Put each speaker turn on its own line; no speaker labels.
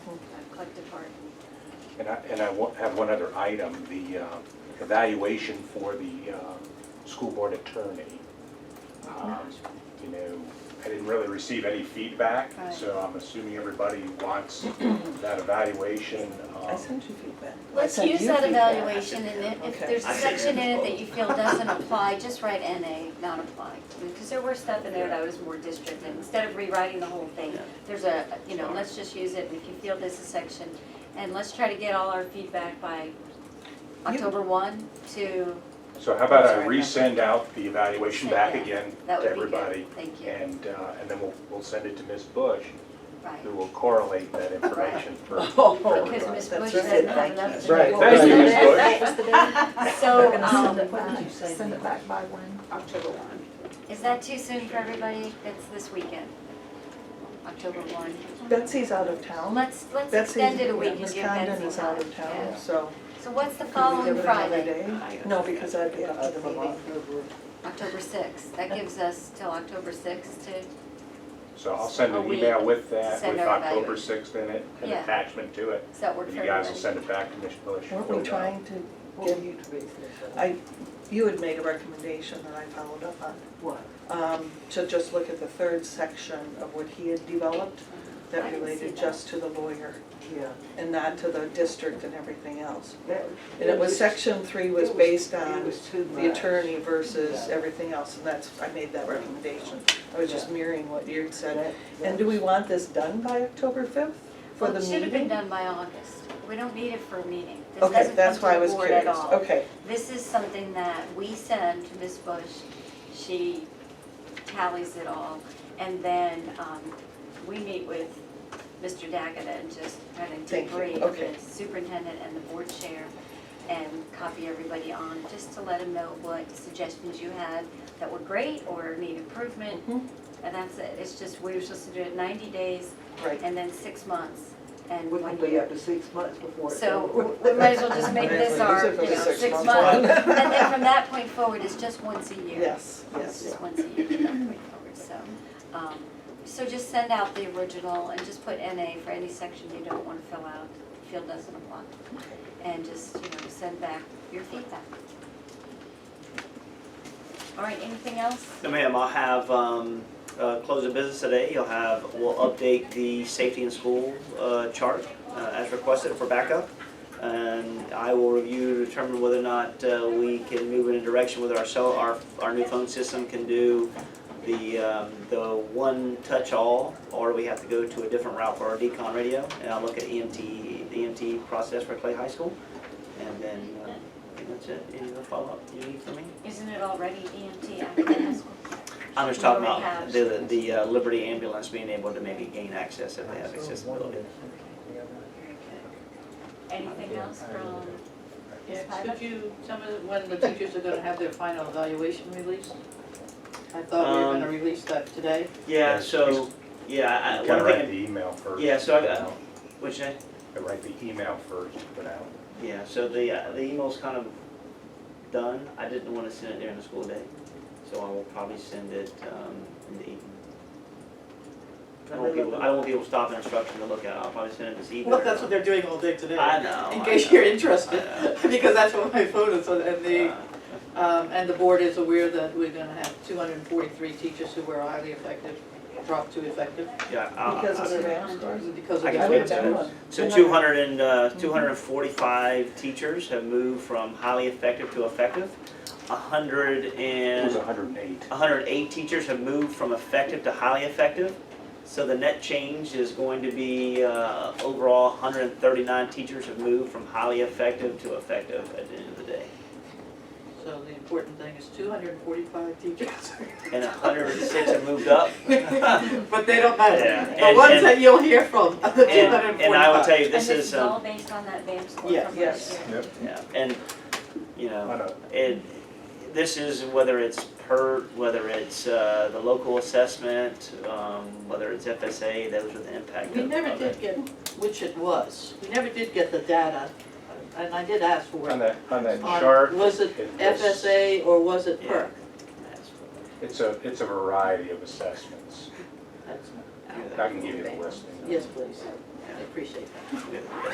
And I, and I wa- have one other item, the uh, evaluation for the uh, school board attorney. Um, You know, I didn't really receive any feedback,
Right.
so I'm assuming everybody wants that evaluation. um,
I sent you feedback. I
Let's
sent
use
you
that
feedback.
evaluation and if- if
Okay.
there's a
I see.
section in it that you feel doesn't apply, just write NA, not apply. Because there were stuff in there that was more district and instead of rewriting the whole thing,
Yeah.
there's a, you know, let's just use it and if you feel this is section. And let's try to get all our feedback by October one to,
So how about I
Sorry, no.
resend out the evaluation back
Yeah,
again to
that would be
everybody?
good. Thank you.
And, uh, and then we'll, we'll send it to Ms. Bush,
Right.
who will correlate that information for
Oh,
for everybody.
Because Ms.
That's
Bush
right.
doesn't have
Thank
enough.
you.
to
That's right.
do.
Thank you, Ms. Bush.
So,
Send
um,
it- What did you say?
Send it back by when?
October one.
is that too soon for everybody? That's this weekend, October one.
Betsy's out of town.
Let's, let's
Betsy,
extend it a week
yeah,
and
Miss
give
Condon
Betsy
is out
time.
of town,
Yeah.
so.
So what's the
could we do
following
it another
Friday?
day? No, because I'd be out to the Vermont.
October sixth. That gives us till October sixth to,
So I'll send
A
an
week
email with that,
send
with
our
October
evaluation.
6th in it, an
Yeah.
attachment to it.
does that work
And
for
you
everybody?
guys will send it back to Ms. Bush.
Weren't we trying to
What
get,
were you to base
I, you had made a recommendation that I followed up on.
What?
um, to just look at the third section of what he had developed
I
that
didn't see
related
that.
just to the lawyer
Yeah.
and not to the district and everything else.
That-
And it was, section three was based
It
on
was too much.
the attorney versus
Yeah.
everything else, and that's, I made that recommendation. I was just
Yeah.
mirroring what you had said.
That-
And do we want this done by October fifth for
Well,
the
it
meeting?
should have been done by August. We don't need it for a meeting. This
Okay,
doesn't come
that's
to
why I
the
was
board
curious.
at all.
Okay,
This is something that we send to Ms. Bush, she tallies it all, and then um, we meet with Mr. Daggett and just kind of
Thank you.
debrief
Okay.
the superintendent and the board chair and copy everybody on, just to let them know what suggestions you had that were great or need improvement.
Mhm.
And that's it, it's just, we were supposed to do it 90 days
right.
and then six months and
We
one
could
year.
be up to six months before. it's over.
So we might as well just make this our, you know, six months. And then from that point forward, it's just once a year.
Yes,
It's
yes.
just once a year from that point forward, so. um, So just send out the original and just put NA for any section you don't want to fill out, field doesn't apply. And just, you know, send back your feedback. All right, anything else?
No, ma'am, I'll have, um, uh, close of business today, you'll have, we'll update the safety in school, uh, chart, uh, as requested for backup. And I will review to determine whether or not, uh, we can move in a direction whether our cell, our, our new phone system can do the, um, the one touch all, or we have to go to a different route for our decon radio. And I'll look at EMT, the EMT process for Clay High School, and then, uh, I think that's it, any other follow-up you need from me?
Isn't it already E EMT academic school?
I'm just talking
Well, we have-
about the, the uh, Liberty ambulance being able to maybe gain access if they have accessibility.
Very good. Anything else from Ms.
Yes,
Piper?
could you tell me when the teachers are gonna have their final evaluation released? I thought we were gonna
Um,
release that today.
Yeah, so, yeah, I,
You
one
gotta write
thing,
the email first.
yeah, so I,
put
uh,
out.
which I,
Gotta Write the email first, put out.
yeah, so the, uh, the email's kind of done, I didn't wanna send it during the school day, so I will probably send it, um, in the evening. I don't want people, I don't want people stopping instruction to look at it, I'll probably send it this evening.
Well, that's what they're doing all day today.
I know.
In
I
case
know.
you're interested,
I know.
because that's what my phone is, on, and the,
Uh,
um, and the board is aware that we're gonna have two hundred and forty-three teachers who were highly effective, dropped to effective
Yeah, I'll,
Because of
I'll-
the mask scores.
because
I
of
guess
I
we
wrote
have
that.
down
to-
one.
So 200 and, uh, 245 teachers have moved from highly effective to effective. 100
It was
and,
108.
108 teachers have moved from effective to highly effective. So the net change is going to be, uh, overall, 139 teachers have moved from highly effective to effective at the end of the day.
So the important thing is two hundred and forty-five teachers.
And 106 have moved up.
But they
Yeah,
don't matter. The
and-
ones
and-
that you'll hear from are the two hundred and
And
forty-five.
and I will tell you, this
And
is,
all
um,
based on that BAM score
Yeah.
from
Yes.
last year.
Yep.
yeah, and, you know.
I know.
it, this is whether it's per, whether it's uh, the local assessment, um, whether it's FSA, those are the impact
We
of-
never
of
did
it.
get, which it was, we never did get the data, and I did ask for
On
it.
that, on that
On-
chart,
Was it
it was-
FSA or was it
Yeah.
PERC?
it's a, it's a variety of assessments.
That's-
I can give you the list.
Yes, please, I appreciate that.